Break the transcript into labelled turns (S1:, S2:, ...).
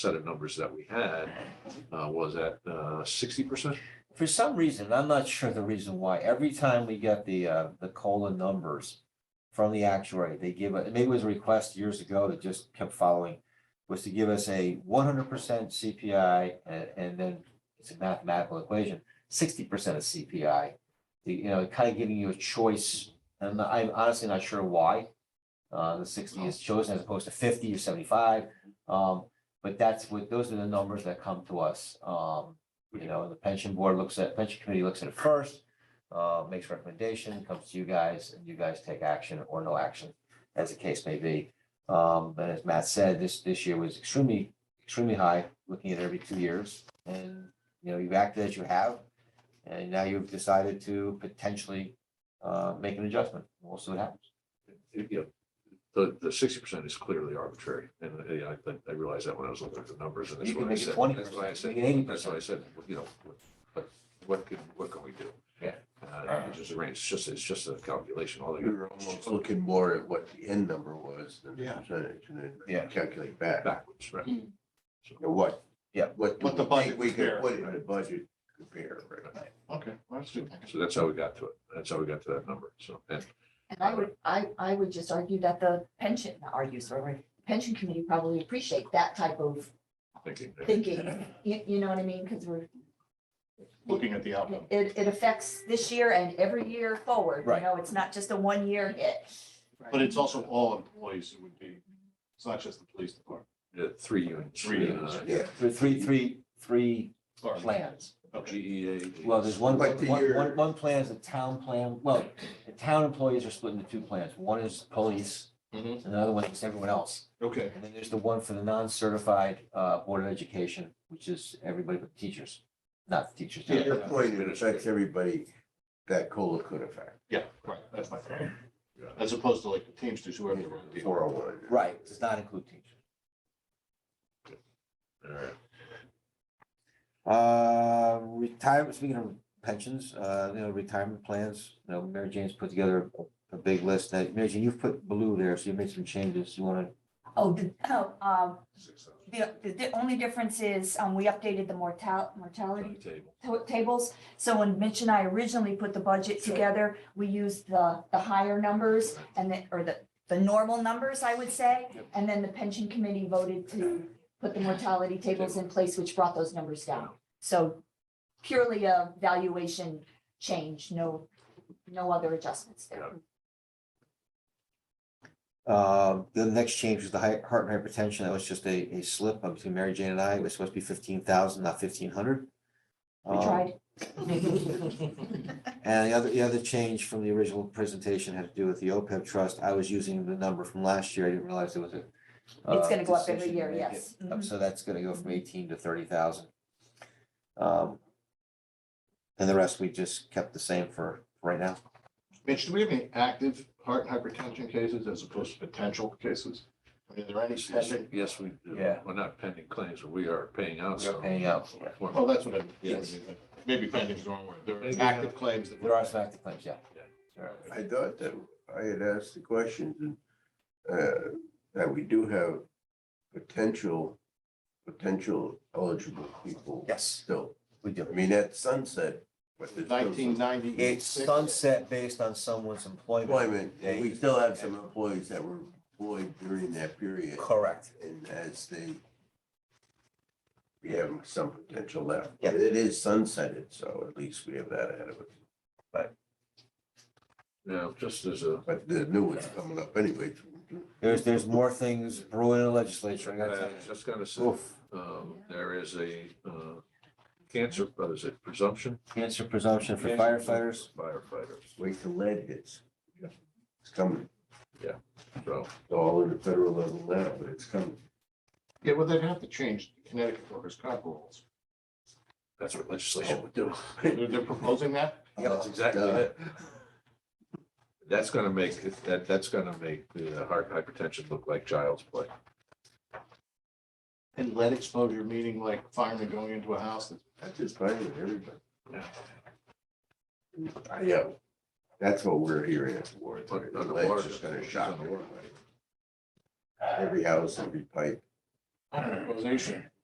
S1: set of numbers that we had uh, was at sixty percent.
S2: For some reason, I'm not sure the reason why, every time we get the, uh, the COLA numbers from the actuary, they give, a- maybe it was a request years ago that just kept following, was to give us a one hundred percent CPI and, and then it's a mathematical equation, sixty percent of CPI. The- You know, kind of giving you a choice, and I'm honestly not sure why. Uh, the sixty is chosen as opposed to fifty or seventy-five, um, but that's what, those are the numbers that come to us, um. You know, the pension board looks at, pension committee looks at it first, uh, makes recommendation, comes to you guys, and you guys take action or no action, as the case may be. Um, but as Matt said, this, this year was extremely, extremely high, looking at every two years. And, you know, you've acted as you have, and now you've decided to potentially, uh, make an adjustment. We'll see what happens.
S1: You know, the, the sixty percent is clearly arbitrary, and uh, yeah, I think, I realized that when I was looking at the numbers, and that's
S2: You can
S1: what I
S2: make it
S1: said.
S2: twenty
S1: That's why I
S2: percent,
S1: said,
S2: make it eighty
S1: that's why I
S2: percent.
S1: said, you know, but what can, what can we do?
S2: Yeah.
S1: Uh, it's just a range, it's just, it's just a calculation, all
S3: We
S1: the
S3: were almost looking more at what the end number was than the
S4: Yeah.
S3: percentage and then
S2: Yeah.
S3: calculate back.
S1: backwards, right?
S2: Mm-hmm.
S3: you know, What?
S2: Yeah.
S3: What do
S4: What the
S3: we think
S4: budget
S3: we could
S4: compared,
S3: put in the budget compare, right?
S4: Okay, well, that's good.
S1: So that's how we got to it, that's how we got to that number, so, and
S5: And I would, I, I would just argue that the pension, not argue, sorry, pension committee probably appreciate that type of
S1: thinking. uh,
S5: thinking. You, you know what I mean? Because we're,
S4: Looking at the outcome.
S5: it, it affects this year and every year forward. You
S2: Right.
S5: know, it's not just a one-year hit.
S4: But it's also all employees who would be, it's not just the police department.
S1: Yeah, Three units.
S4: Three units,
S1: uh,
S3: Yeah.
S2: Three, three, three, three plans.
S4: Okay.
S1: GEA.
S2: Well, there's one,
S3: But the
S2: one,
S3: year-
S2: one, one plan is the town plan, well, the town employees are split into two plans, one is police.
S1: Mhm.
S2: and the other one is everyone else,
S4: Okay.
S2: and then there's the one for the non-certified, uh, Board of Education, which is everybody but teachers, not teachers.
S3: To your
S2: not-
S3: point, it affects everybody that COLA could affect,
S4: Yeah, right, that's my point. As opposed to like the Teamsters, whoever. they were.
S3: four oh one.
S2: Right, does not include teachers.
S1: All right.
S2: Uh, retirement, speaking of pensions, uh, you know, retirement plans, you know, Mary Jane's put together a- a big list, that, Mary Jane, you've put blue there, so you made some changes, you wanna,
S5: Oh, the, oh, um,
S1: Six thousand.
S5: the, the- the only difference is, um, we updated the mortal, mortality
S1: Table.
S5: to- tables. So when Mitch and I originally put the budget together, we used the, the higher numbers and the, or the, the normal numbers, I would say.
S1: Yep.
S5: And then the pension committee voted to put the mortality tables in place, which brought those numbers down. So purely a valuation change, no, no other adjustments there.
S2: Um, the next change was the high, heart and hypertension. That was just a, a slip up between Mary Jane and I. It was supposed to be fifteen thousand, not fifteen hundred. Um,
S5: We tried.
S2: And the other, the other change from the original presentation had to do with the OPEB trust. I was using the number from last year. I didn't realize there was a.
S5: It's
S2: uh,
S5: gonna go up every
S2: decision to
S5: year,
S2: make it
S5: yes.
S2: up.
S5: Mhm.
S2: So that's gonna go from eighteen to thirty thousand. Um. And the rest we just kept the same for right now.
S4: Mitch, do we have any active heart and hypertension cases as opposed to potential cases? I mean, Are there any pending?
S1: Yes, we, do.
S2: Yeah.
S1: we're not pending claims, but we are paying out.
S2: We are
S1: some.
S2: paying out, yeah.
S4: Well, Oh, that's what I,
S2: Yes.
S4: maybe pending is the wrong word. There
S1: Maybe,
S4: are
S1: uh,
S4: active claims that.
S2: There are some active claims, yeah.
S3: I thought that I had asked the questions and, uh, that we do have potential, potential eligible people
S2: Yes,
S3: still.
S2: we do.
S3: I mean, at sunset, but there's still some
S4: Nineteen
S2: It's
S4: ninety-six.
S2: sunset based on someone's employment.
S3: employment, and we still have some employees that were employed during that period.
S2: Correct.
S3: And as they, we have some potential left.
S2: Yeah.
S3: It is sunsetted, so at least we have that ahead of us.
S1: Now, just as a,
S3: But the new one's coming up anyway.
S2: There's, there's more things brewing in the legislature, I gotta
S1: I
S2: tell you.
S1: uh, just gotta say,
S2: Oof.
S1: um, there is a, uh, cancer, what is it, presumption?
S2: Cancer presumption for firefighters.
S1: Firefighters,
S3: Wait till lead hits. It's coming,
S1: so,
S3: It's all in the federal level now, but it's coming.
S4: Yeah, well, they'd have to change Connecticut workers' comp rules.
S1: that's what
S3: Oh,
S1: legislation would do.
S4: They're, they're proposing that?
S1: That's exactly
S3: Uh,
S1: it. That's gonna make, that, that's gonna make the heart hypertension look like child's play.
S4: And lead exposure, meaning like firemen going into a house that's
S3: That's just fine with everybody.
S1: Yeah.
S3: I know. That's what we're hearing at the war.
S1: But
S3: The
S1: underwater-
S3: lead's just gonna shock everybody. Every house, every pipe.
S4: hospitalization